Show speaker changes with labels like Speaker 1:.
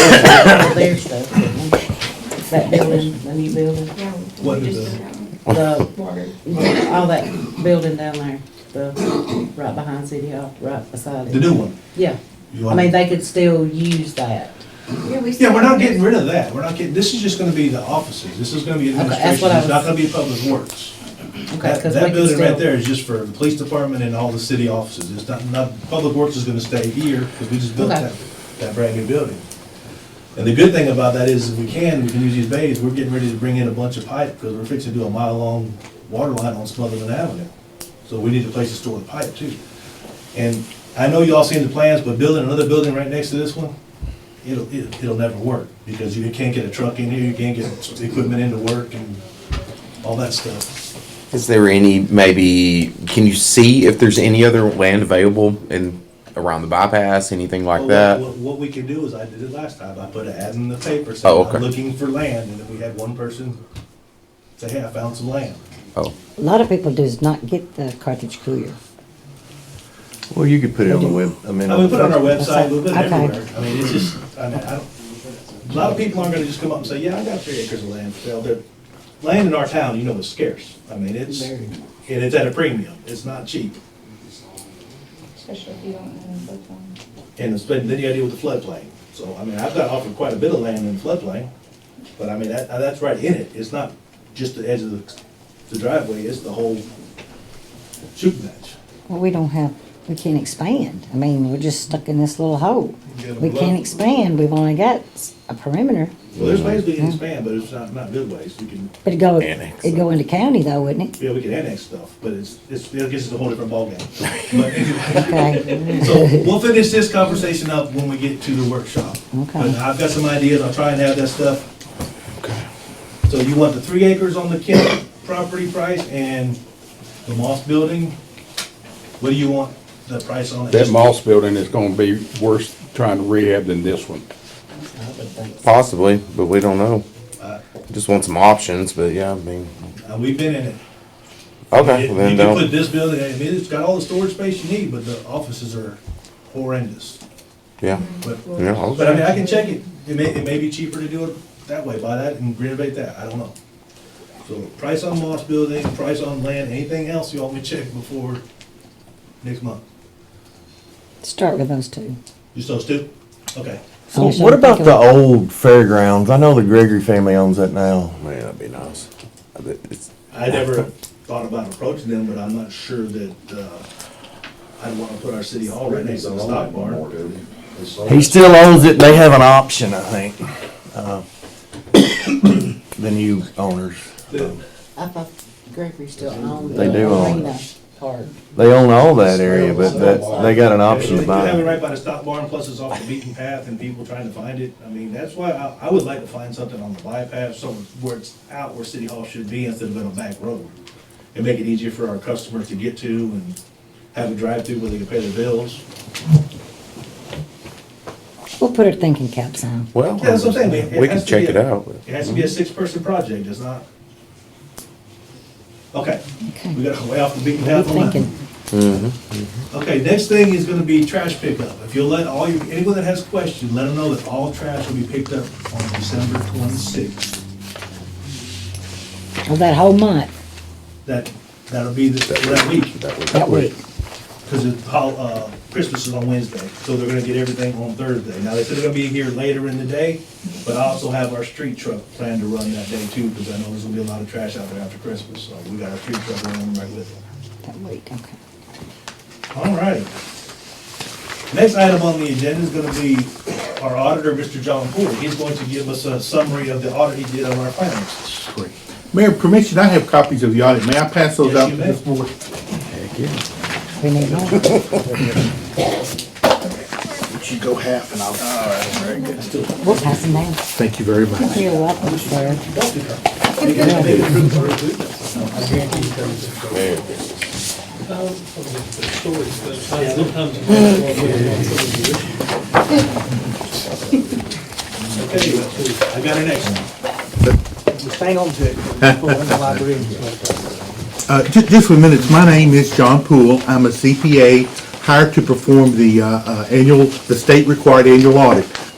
Speaker 1: all their stuff. That building, the new building,
Speaker 2: What
Speaker 3: We
Speaker 2: is
Speaker 3: just
Speaker 2: it?
Speaker 3: did that one.
Speaker 1: the,
Speaker 3: Water.
Speaker 1: all that building down there, the, right behind City Hall, right beside it.
Speaker 2: The new one?
Speaker 1: Yeah,
Speaker 2: You
Speaker 1: I
Speaker 2: want-
Speaker 1: mean, they could still use that.
Speaker 2: Yeah, we're not getting rid of that, we're not getting, this is just gonna be the offices, this is gonna be
Speaker 1: that's
Speaker 2: administration,
Speaker 1: what I
Speaker 2: it's not
Speaker 1: was-
Speaker 2: gonna be public works.
Speaker 1: Okay,
Speaker 2: That,
Speaker 1: 'cause
Speaker 2: that
Speaker 1: we could
Speaker 2: building right
Speaker 1: still,
Speaker 2: there is just for the police department and all the city offices, it's not, not, public works is gonna stay here, because we just built
Speaker 1: Okay.
Speaker 2: that, that brand new building. And the good thing about that is, if we can, we can use these bays, we're getting ready to bring in a bunch of pipe, because we're fixing to do a mile-long water line on Smotherman Avenue. So we need a place to store the pipe too. And I know you all seen the plans, but building another building right next to this one, it'll, it'll it'll never work, because you can't get a truck in here, you can't get equipment into work and all that stuff.
Speaker 4: Is there any, maybe, can you see if there's any other land available in, around the bypass, anything like
Speaker 2: Oh, Well,
Speaker 4: that?
Speaker 2: What, what we can do is, I did it last time, I put an ad in the paper,
Speaker 4: Oh,
Speaker 2: saying,
Speaker 4: okay.
Speaker 2: I'm looking for land, and then we had one person say, hey, I found some land.
Speaker 4: Oh,
Speaker 5: A lot of people does not get the cartridge cooler.
Speaker 6: Well, you could put it on the web, I mean.
Speaker 2: I mean, we put it on our
Speaker 5: That's
Speaker 2: website, we put it
Speaker 5: okay.
Speaker 2: everywhere, I mean, it's just, I mean, I don't, a lot of people aren't gonna just come up and say, yeah, I got three acres of land, well, they're, land in our town, you know, is scarce, I mean, it's,
Speaker 1: Very.
Speaker 2: and it's at a premium, it's not cheap,
Speaker 3: Especially if you don't own both of them.
Speaker 2: and it's, been- then you gotta deal with the floodplain, so, I mean, I've got offered quite a bit of land in the floodplain, but I mean, that, uh, that's right in it, it's not just the edge of the, the driveway, it's the whole shooting match.
Speaker 5: Well, we don't have, we can't expand. I mean, we're just stuck in this little hole.
Speaker 2: Get 'em
Speaker 5: We
Speaker 2: blocked.
Speaker 5: can't expand. We've only got s- a perimeter.
Speaker 2: Well, there's ways we can expand, but it's not, not good ways, we can,
Speaker 5: But it'd go,
Speaker 4: Annex.
Speaker 5: it'd go into county though, wouldn't it?
Speaker 2: yeah, we can annex stuff, but it's, it's, it gets us a whole different ballgame. But anyway.
Speaker 5: Okay.
Speaker 2: So we'll finish this conversation up when we get to the workshop.
Speaker 5: Okay.
Speaker 2: But I've got some ideas, I'll try and have that stuff. So you want the three acres on the Kent property price and the Moss building? What do you want the price on it?
Speaker 7: That Moss building is gonna be worse trying to rehab than this one.
Speaker 4: possibly, but we don't know. Just want some options, but yeah, I mean,
Speaker 2: Uh, We've been in it.
Speaker 4: okay,
Speaker 2: You
Speaker 4: well then
Speaker 2: you can put
Speaker 4: don't,
Speaker 2: this building, I mean, it's got all the storage space you need, but the offices are horrendous.
Speaker 4: yeah,
Speaker 2: But,
Speaker 4: yeah, okay.
Speaker 2: but I mean, I can check it, it may, it may be cheaper to do it that way, buy that and renovate that, I don't know. So price on Moss building, price on land, anything else you want me to check before next month?
Speaker 5: Start with those two.
Speaker 2: Just those two? Okay.
Speaker 6: So what about the old fairgrounds? I know the Gregory family owns that now.
Speaker 4: Man, that'd be nice. I bet it's-
Speaker 2: I never thought about approaching them, but I'm not sure that, uh, I'd wanna put our city hall right next to the stock barn.
Speaker 6: He still owns it, they have an option, I think, uh, the new owners.
Speaker 2: The-
Speaker 1: I thought Gregory still owned the
Speaker 6: They do own
Speaker 1: arena
Speaker 6: it.
Speaker 1: part.
Speaker 6: They own all that area, but that, they got an option
Speaker 2: If
Speaker 6: to
Speaker 2: you have it
Speaker 6: buy.
Speaker 2: right by the stock barn, plus it's off the beaten path and people trying to find it, I mean, that's why I, I would like to find something on the bypass, somewhere where it's out where City Hall should be instead of in a back road. And make it easier for our customers to get to and have a drive-through where they can pay their bills.
Speaker 5: We'll put our thinking caps on.
Speaker 4: Well,
Speaker 2: Yeah, that's what I'm saying.
Speaker 4: we can check it out. mm-hmm.
Speaker 2: It has to be a six-person project, it's not. Okay,
Speaker 5: Okay.
Speaker 2: we got way off the beaten
Speaker 5: We're
Speaker 2: path on that.
Speaker 5: thinking.
Speaker 2: Okay, next thing is gonna be trash pickup. If you'll let all your, anyone that has questions, let them know that all trash will be picked up on December twenty-sixth.
Speaker 5: Well, that whole month,
Speaker 2: That, that'll be the- that week,
Speaker 5: that week.
Speaker 2: because it's, hol- uh, Christmas is on Wednesday, so they're gonna get everything on Thursday. Now, they said they're gonna be here later in the day, but I also have our street truck planned to run that day too, because I know there's gonna be a lot of trash out there after Christmas, so we got our street truck running right with it.
Speaker 5: That week, okay.
Speaker 2: All right. Next item on the agenda is gonna be our auditor, Mr. John Ford. He's going to give us a summary of the audit he did on our finances.
Speaker 7: Mayor, permission, I have copies of the audit. May I pass those
Speaker 2: Yes,
Speaker 7: out
Speaker 2: you
Speaker 7: to
Speaker 2: may.
Speaker 7: this board?
Speaker 5: We need more.
Speaker 7: Would you go half and I'll. All right, very good.
Speaker 5: We'll pass them down.
Speaker 7: Thank you very much.
Speaker 5: You're welcome, sir.
Speaker 2: Okay, I got our next one.
Speaker 8: Hang on to it.
Speaker 7: Uh, ju- just for minutes, my name is John Poole. I'm a CPA hired to perform the, uh, uh, annual, the state required annual audit.